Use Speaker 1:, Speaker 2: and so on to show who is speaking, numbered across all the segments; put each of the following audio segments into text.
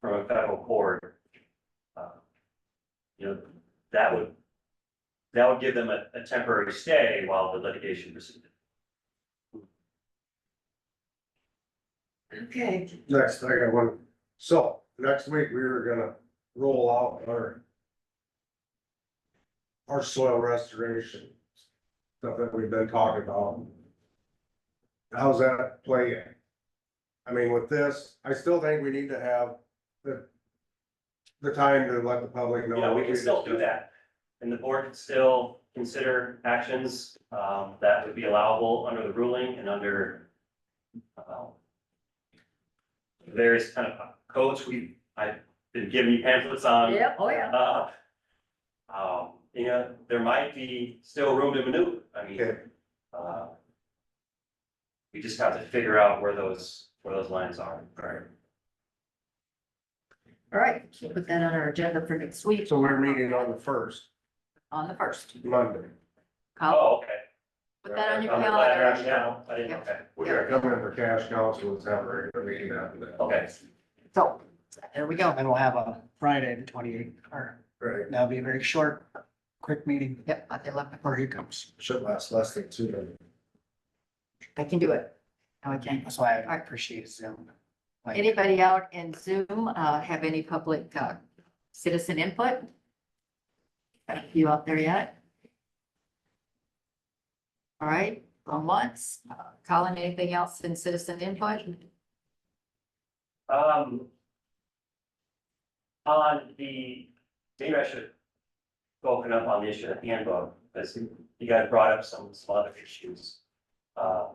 Speaker 1: from a federal court. uh, You know, that would, that would give them a, a temporary stay while the litigation proceeded.
Speaker 2: Okay,
Speaker 3: Next, I got one. So next week, we were gonna roll out our our soil restoration stuff that we've been talking about. How's that playing? I mean, with this, I still think we need to have the the time to let the public know.
Speaker 1: You know, we can still do that. And the board can still consider actions, um, that would be allowable under the ruling and under, um, various kind of codes we, I've been giving you pamphlets on.
Speaker 2: yeah, oh yeah,
Speaker 1: Uh, Um, you know, there might be still room to maneuver, I mean,
Speaker 3: Okay.
Speaker 1: uh. We just have to figure out where those, where those lines are.
Speaker 2: Oh.
Speaker 3: Alright,
Speaker 2: all right, we'll put that on our agenda for next week
Speaker 3: so we're meeting on the first,
Speaker 2: on the first.
Speaker 3: Monday.
Speaker 2: I'll
Speaker 1: Oh, okay.
Speaker 2: put that on your
Speaker 1: I'm
Speaker 2: calendar.
Speaker 1: glad, yeah, I didn't, okay,
Speaker 3: We are coming for cash council, it's have a regular meeting after that.
Speaker 1: okay,
Speaker 2: So,
Speaker 4: There we go. And we'll have a Friday, the twenty-eighth, or
Speaker 3: Right,
Speaker 4: that'll be a very short, quick meeting
Speaker 2: yep, I can, let-
Speaker 4: before he comes.
Speaker 3: should last less than two minutes.
Speaker 2: I can do it. No, I can.
Speaker 4: That's why I appreciate Zoom. Like,
Speaker 2: Anybody out in Zoom, uh, have any public, uh, citizen input? Got a few out there yet? All right, on once, Uh, Colin, anything else in citizen input?
Speaker 1: um. On the, maybe I should open up on the issue of handbook, because you guys brought up some, some other issues. Uh,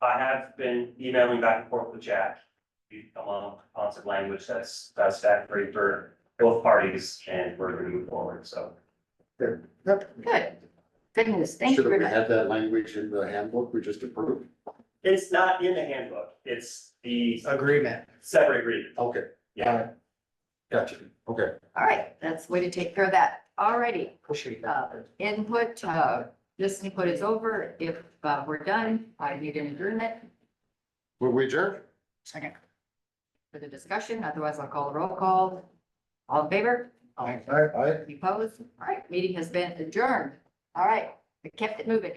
Speaker 1: I have been emailing back and forth with Jack. We come on, on some language that's, that's satisfactory for both parties and we're gonna move forward, so.
Speaker 2: Good. Goodness, thank you
Speaker 5: Should
Speaker 2: very
Speaker 5: have
Speaker 2: much.
Speaker 5: had that language in the handbook we just approved.
Speaker 1: It's not in the handbook, it's the
Speaker 4: Agreement.
Speaker 1: separate agreement,
Speaker 5: Okay,
Speaker 1: yeah,
Speaker 5: gotcha. Okay.
Speaker 2: All right, that's the way to take care of that. All righty,
Speaker 4: Appreciate
Speaker 2: uh, input, uh, this input is over. If, uh, we're done, I need an adjournment
Speaker 5: Will we adjourn?
Speaker 4: Second.
Speaker 2: for the discussion, otherwise I'll call a roll call. All in favor?
Speaker 4: Aye.
Speaker 5: I, I.
Speaker 2: Any Opposed? All right, meeting has been adjourned. All right, we kept it moving.